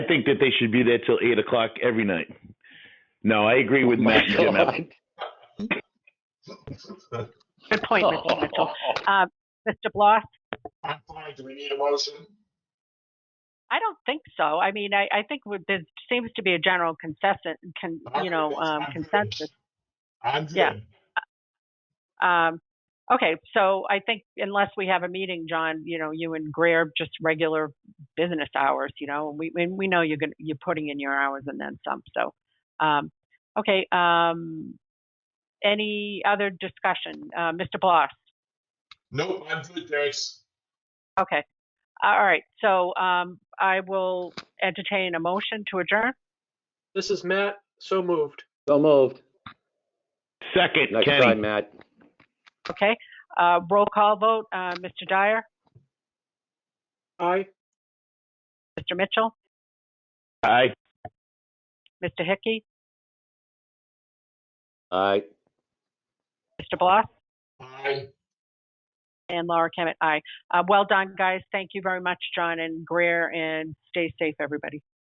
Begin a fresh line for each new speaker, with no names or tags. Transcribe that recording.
think that they should be there till eight o'clock every night. No, I agree with Matt and Jim.
Oh God.
Good point, Mr. Mitchell. Uh, Mr. Bloss?
I'm fine. Do we need a motion?
I don't think so. I mean, I, I think would- there seems to be a general consensus, con, you know, um,
I'm good.
consensus.
I'm good.
Yeah. Um, okay, so I think unless we have a meeting, John, you know, you and Greer, just regular business hours, you know, and we, and we know you're gonna, you're putting in your hours and then some, so. Um, okay, um, any other discussion? Uh, Mr. Bloss?
Nope, I'm good, thanks.
Okay, all right, so, um, I will entertain a motion to adjourn.
This is Matt, so moved.
So moved.
Second,
Nice try,
Kenny.
Matt.
Okay, uh, roll call vote, uh, Mr. Dyer,
Aye.
Mr. Mitchell,
Aye.
Mr. Hickey,
All right.
Mr. Bloss,
Aye.
and Laura Kemet, aye. Uh, well done, guys. Thank you very much, John and Greer, and stay safe, everybody.